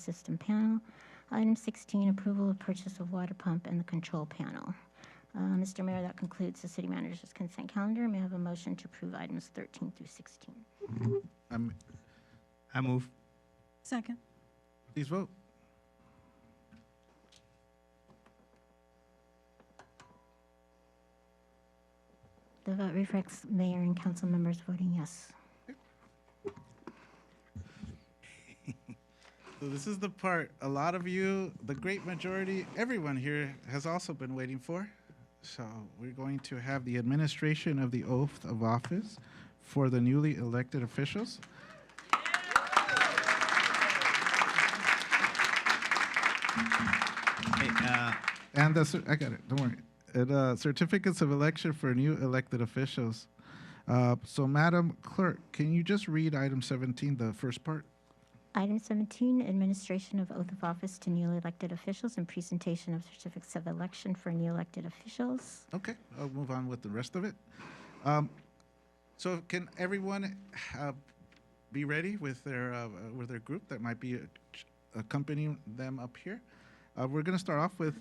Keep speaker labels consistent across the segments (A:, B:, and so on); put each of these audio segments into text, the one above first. A: system panel. Item 16, approval of purchase of water pump and the control panel. Uh, Mr. Mayor, that concludes the city manager's consent calendar. May I have a motion to approve items 13 through 16?
B: I'm,
C: I move.
D: Second.
B: please vote.
A: The vote reflects mayor and council members voting yes.
B: So this is the part a lot of you, the great majority, everyone here has also been waiting for. So we're going to have the administration of the oath of office for the newly elected officials.
C: Hey, uh,
B: And the, cer- I got it, don't worry. And, uh, certificates of election for new elected officials. Uh, so Madam Clerk, can you just read item seventeen, the first part?
A: Item 17, administration of oath of office to newly elected officials and presentation of certificates of election for new elected officials.
B: Okay, I'll move on with the rest of it. Um, so can everyone uh, be ready with their uh, with their group that might be uh, ch- accompanying them up here? Uh, we're going to start off with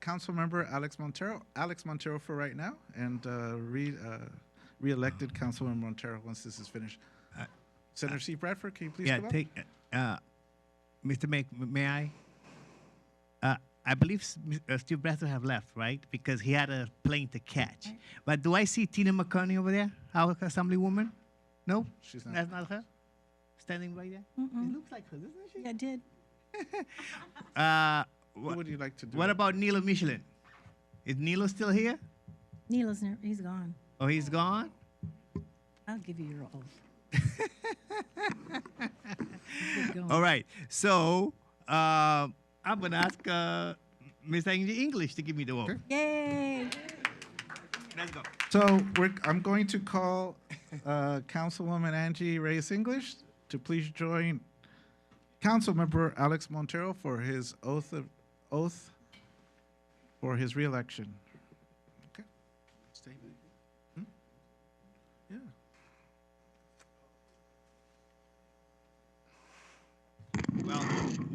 B: Councilmember Alex Montero. Alex Montero for right now, and uh, re uh, re-elected Councilmember Montero once this is finished. Senator C. Bradford, can you please
C: Uh, yeah,
B: come up?
C: take, uh, Mr. Mac, may I? Uh, I believe S- Ms- uh, Steve Bradford have left, right? Because he had a plane to catch. But do I see Tina McCartney over there, our Assemblywoman? No,
B: She's not.
C: That's not her. Standing right there. It looks like her, doesn't she?
D: I did.
C: Uh,
B: Who
C: what,
B: would you like to do?
C: what
B: it?
C: about Nilo Michelin? Is Nilo still here?
D: Neela's, ne- he's gone.
C: Oh, he's gone.
D: I'll give you your oath.
C: All right. So um I'm gonna ask uh, Miss Angie English to give me the vote.
D: Yay!
C: Let's go.
B: So we're, I'm going to call uh, Councilwoman Angie Reyes English to please join Councilmember Alex Montero for his oath of oath for his reelection. Okay. Stay back. Hmm? Yeah.
C: Well,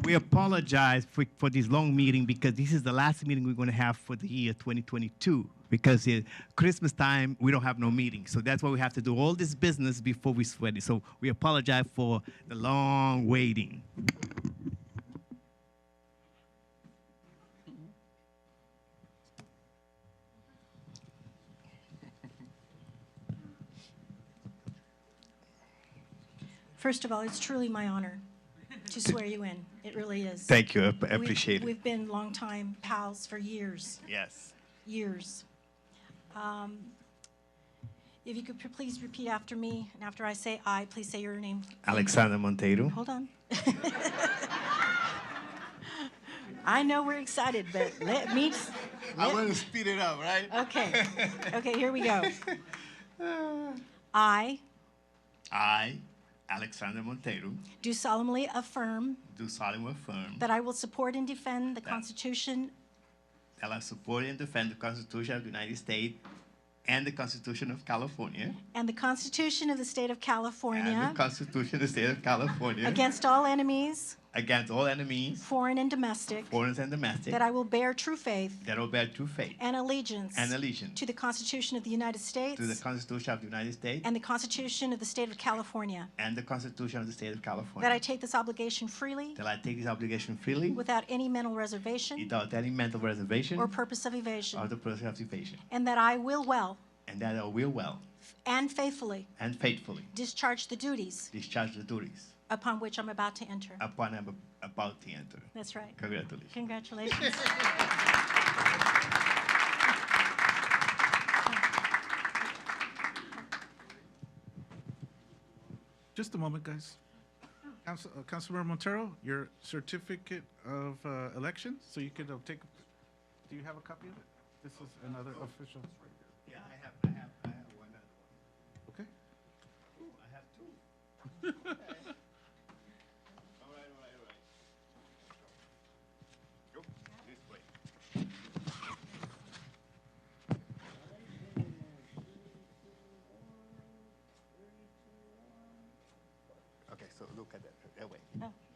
C: we apologize for, for this long meeting because this is the last meeting we're going to have for the year 2022 because it, Christmas time we don't have no meeting. So that's why we have to do all this business before we sweat it. So we apologize for the long waiting.
D: First of all, it's truly my honor to swear you in. It really is.
E: Thank you. I ap- I
D: We've-
E: appreciate it.
D: We've been longtime pals for years.
C: Yes.
D: years. Um, If you could p- please repeat after me, and after I say "I," please say your name.
E: Alexander Monteiro.
D: Hold on. I know we're excited, but let me, s-
E: I want to speed it up, right?
D: okay, okay, here we go. I
E: I, Alexander Monteiro,
D: do solemnly affirm
E: do solemnly affirm
D: that I will support and defend the Constitution
E: that I support and defend the Constitution of the United States and the Constitution of California
D: and the Constitution of the State of
E: and
D: California
E: the Constitution of the State of California
D: against all enemies,
E: against all enemies,
D: foreign and domestic,
E: foreign and domestic,
D: that I will bear true faith
E: that will bear true faith
D: And allegiance.
E: And allegiance.
D: To the Constitution of the United States.
E: to the Constitution of the United States
D: And the Constitution of the State of California.
E: and the Constitution of the State of California.
D: That I take this obligation freely.
E: That I take this obligation freely
D: Without any mental reservation.
E: without any mental reservation
D: Or purpose of
E: or
D: evasion.
E: the process of evasion,
D: And that I will well
E: and that I will well
D: and faithfully
E: and faithfully
D: discharge the duties
E: discharge the duties
D: upon which I'm about to enter.
E: upon I'm about to enter.
D: That's right.
E: Congratulations.
D: Congratulations.
B: Just a moment, guys. Council, uh, Councilmember Montero, your certificate of uh, election, so you could uh, take, do you have a copy of it? This is another official.
E: Yeah, I have, I have, I have one.
B: Okay.
E: I have two. All right, all right, all right. Go this way. Okay, so look at that, that way.
D: Oh,